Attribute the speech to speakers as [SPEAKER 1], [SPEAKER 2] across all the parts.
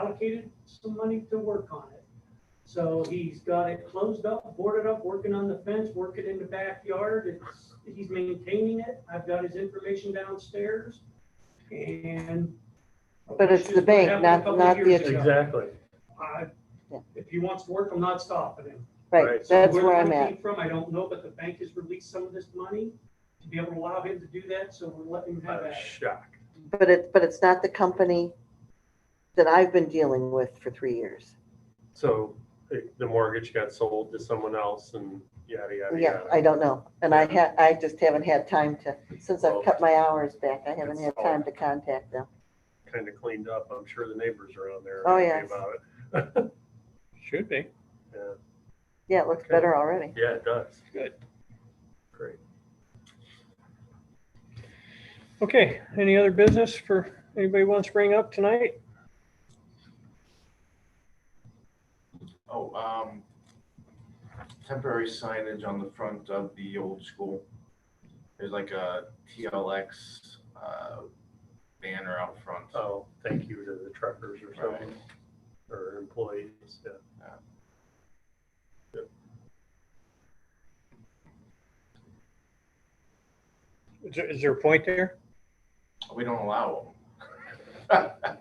[SPEAKER 1] allocated some money to work on it. So he's got it closed up, boarded up, working on the fence, working in the backyard. It's, he's maintaining it. I've got his information downstairs and.
[SPEAKER 2] But it's the bank,
[SPEAKER 1] Happened a
[SPEAKER 2] not-
[SPEAKER 1] couple
[SPEAKER 2] not
[SPEAKER 1] years
[SPEAKER 2] the-
[SPEAKER 1] ago.
[SPEAKER 3] Exactly.
[SPEAKER 1] I-
[SPEAKER 2] Yeah.
[SPEAKER 1] If he wants to work, I'm not stopping him.
[SPEAKER 2] Right,
[SPEAKER 3] Right,
[SPEAKER 1] So
[SPEAKER 2] that's
[SPEAKER 1] the
[SPEAKER 2] where I'm
[SPEAKER 1] money
[SPEAKER 2] at.
[SPEAKER 1] came From, I don't know, but the bank has released some of this money to be able to allow him to do that, so we're letting him
[SPEAKER 3] I
[SPEAKER 1] have
[SPEAKER 3] was
[SPEAKER 1] that.
[SPEAKER 3] shocked.
[SPEAKER 2] But it, but it's not the company that I've been dealing with for three years.
[SPEAKER 3] So the the mortgage got sold to someone else and yada, yada,
[SPEAKER 2] Yeah,
[SPEAKER 3] yada.
[SPEAKER 2] I don't know. And I had, I just haven't had time to, since I've cut my hours back, I haven't had time to contact them.
[SPEAKER 3] Kind of cleaned up. I'm sure the neighbors around there
[SPEAKER 2] Oh,
[SPEAKER 3] are happy
[SPEAKER 2] yes.
[SPEAKER 3] about it.
[SPEAKER 4] Should be.
[SPEAKER 3] Yeah.
[SPEAKER 2] Yeah, it looks
[SPEAKER 3] Okay.
[SPEAKER 2] better already.
[SPEAKER 3] Yeah, it does.
[SPEAKER 4] Good.
[SPEAKER 3] Great.
[SPEAKER 4] Okay, any other business for, anybody wants to bring up tonight?
[SPEAKER 5] Oh, um, temporary signage on the front of the old school. There's like a TLX, uh, banner out front.
[SPEAKER 3] Oh, thank you to the truckers or something, or employees, yeah.
[SPEAKER 4] Is there, is there a point there?
[SPEAKER 5] We don't allow them.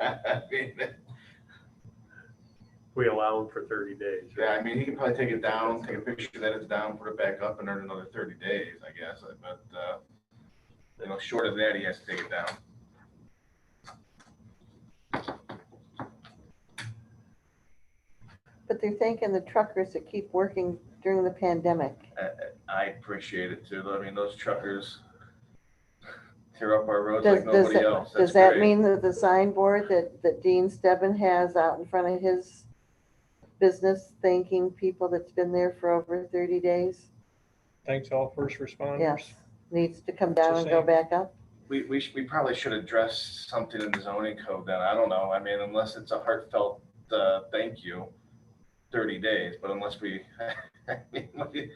[SPEAKER 5] I mean,
[SPEAKER 3] We allow them for thirty days.
[SPEAKER 5] Yeah, I mean, he can probably take it down, take a picture that it's down, put it back up and earn another thirty days, I guess, but, uh, you know, short of that, he has to take it down.
[SPEAKER 2] But they're thanking the truckers that keep working during the pandemic.
[SPEAKER 5] I appreciate it too, though. I mean, those truckers tear up our roads
[SPEAKER 2] Does,
[SPEAKER 5] like
[SPEAKER 2] does,
[SPEAKER 5] nobody
[SPEAKER 2] it-
[SPEAKER 5] else. That's
[SPEAKER 2] does that
[SPEAKER 5] great.
[SPEAKER 2] mean that the signboard that, that Dean Stebbin has out in front of his business thanking people that's been there for over thirty days?
[SPEAKER 4] Thanks all first responders.
[SPEAKER 2] Yes, needs to come
[SPEAKER 4] That's
[SPEAKER 2] down
[SPEAKER 4] the
[SPEAKER 2] and go
[SPEAKER 4] same.
[SPEAKER 2] back up?
[SPEAKER 5] We, we, sh- we probably should address something in the zoning code then. I don't know. I mean, unless it's a heartfelt, uh, thank you, thirty days, but unless we, I mean, we-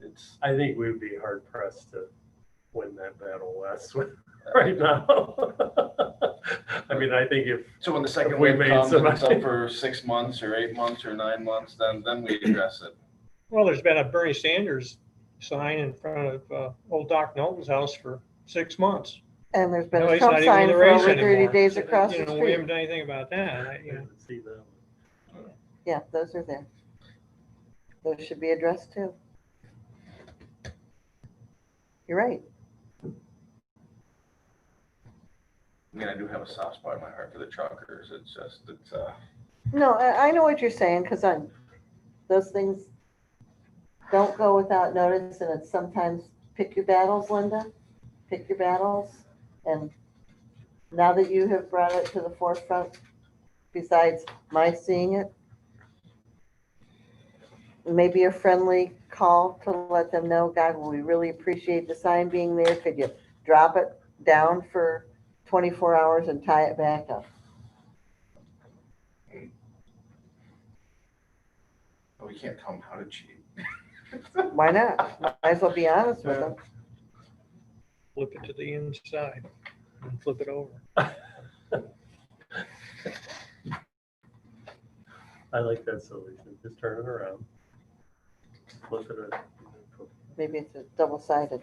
[SPEAKER 5] it's,
[SPEAKER 3] I think we would be hard pressed to win that battle, Wes, right now. I mean, I think if,
[SPEAKER 5] so when the second
[SPEAKER 3] We
[SPEAKER 5] wave
[SPEAKER 3] made
[SPEAKER 5] comes and it's
[SPEAKER 3] somebody-
[SPEAKER 5] up for six months or eight months or nine months, then, then we address it.
[SPEAKER 4] Well, there's been a Bernie Sanders sign in front of, uh, old Doc Knowlton's house for six months.
[SPEAKER 2] And there's been
[SPEAKER 4] Now
[SPEAKER 2] a
[SPEAKER 4] he's
[SPEAKER 2] Trump
[SPEAKER 4] not even in
[SPEAKER 2] sign
[SPEAKER 4] the
[SPEAKER 2] for
[SPEAKER 4] race
[SPEAKER 2] over thirty
[SPEAKER 4] anymore. uh,
[SPEAKER 2] days
[SPEAKER 3] So,
[SPEAKER 2] across
[SPEAKER 4] You
[SPEAKER 2] the
[SPEAKER 4] know, we haven't
[SPEAKER 2] street.
[SPEAKER 4] done anything about that. I- you know.
[SPEAKER 3] see that,
[SPEAKER 2] Yeah, those are there. Those should be addressed too. You're right.
[SPEAKER 5] I mean, I do have a soft spot in my heart for the truckers. It's just, it's, uh,
[SPEAKER 2] No, I, I know what you're saying, because I'm, those things don't go without notice, and it's sometimes pick your battles, Linda, pick your battles. And now that you have brought it to the forefront, besides my seeing it, maybe a friendly call to let them know, God, we really appreciate the sign being there. Could you drop it down for 24 hours and tie it back up?
[SPEAKER 5] we can't tell them how to cheat.
[SPEAKER 2] Why not? Might as well be honest with them.
[SPEAKER 4] flip it to the inside and flip it over.
[SPEAKER 3] I like that solution, just turn it around. Flip it. up.
[SPEAKER 2] Maybe it's a double sided.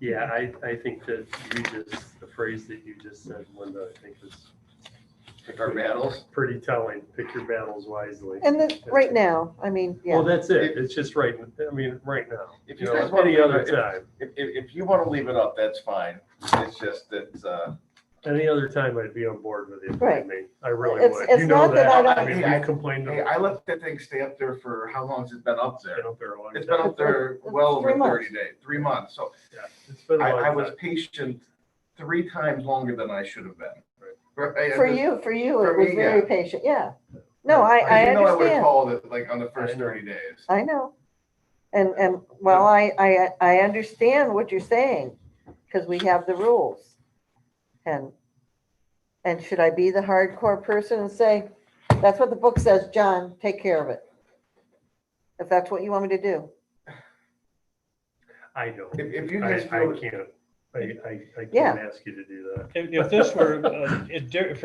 [SPEAKER 3] Yeah, I, I think that you just, the phrase that you just said, Linda, I think is
[SPEAKER 5] Pick our battles.
[SPEAKER 3] pretty telling, pick your battles wisely.
[SPEAKER 2] And then, right now, I mean,
[SPEAKER 3] Well,
[SPEAKER 2] yeah,
[SPEAKER 3] that's it, it's just right, I mean, right now,
[SPEAKER 5] If
[SPEAKER 3] you
[SPEAKER 5] you
[SPEAKER 3] know,
[SPEAKER 5] guys want
[SPEAKER 3] any
[SPEAKER 5] to,
[SPEAKER 3] other
[SPEAKER 5] if,
[SPEAKER 3] time.
[SPEAKER 5] if, if you want to leave it up, that's fine. It's just that, uh,
[SPEAKER 3] Any other time I'd be on board with you, believe
[SPEAKER 2] Right.
[SPEAKER 3] me. I really
[SPEAKER 2] It's-
[SPEAKER 3] would.
[SPEAKER 2] it's
[SPEAKER 3] You know
[SPEAKER 2] not that I
[SPEAKER 3] that. I
[SPEAKER 5] don't-
[SPEAKER 3] mean,
[SPEAKER 5] I-
[SPEAKER 3] we complained.
[SPEAKER 5] hey, I let that thing stay up there for, how long has it been up there? It's
[SPEAKER 3] It's
[SPEAKER 5] been up there well over
[SPEAKER 2] Three months.
[SPEAKER 5] thirty days, three months. So
[SPEAKER 3] It's been a
[SPEAKER 5] I, I
[SPEAKER 3] long
[SPEAKER 5] was
[SPEAKER 3] time.
[SPEAKER 5] patient three times longer than I should have been. Right, I-
[SPEAKER 2] for
[SPEAKER 5] I-
[SPEAKER 2] you, for you,
[SPEAKER 5] for
[SPEAKER 2] it was
[SPEAKER 5] me,
[SPEAKER 2] very
[SPEAKER 5] yeah.
[SPEAKER 2] patient, yeah. No, I,
[SPEAKER 3] Right.
[SPEAKER 2] I
[SPEAKER 5] Because you know I would have
[SPEAKER 2] understand,
[SPEAKER 5] called it like on the first
[SPEAKER 3] I know.
[SPEAKER 5] thirty days.
[SPEAKER 2] I know. And, and, well, I, I, I understand what you're saying, because we have the rules. And, and should I be the hardcore person and say, that's what the book says, John, take care of it? If that's what you want me to do.
[SPEAKER 3] I don't.
[SPEAKER 5] If, if you
[SPEAKER 3] I,
[SPEAKER 5] guys
[SPEAKER 3] I
[SPEAKER 5] feel,
[SPEAKER 3] can't.
[SPEAKER 6] I, I, I
[SPEAKER 7] Yeah.
[SPEAKER 6] can't ask you to do that.
[SPEAKER 3] If, if this were, uh, a di- if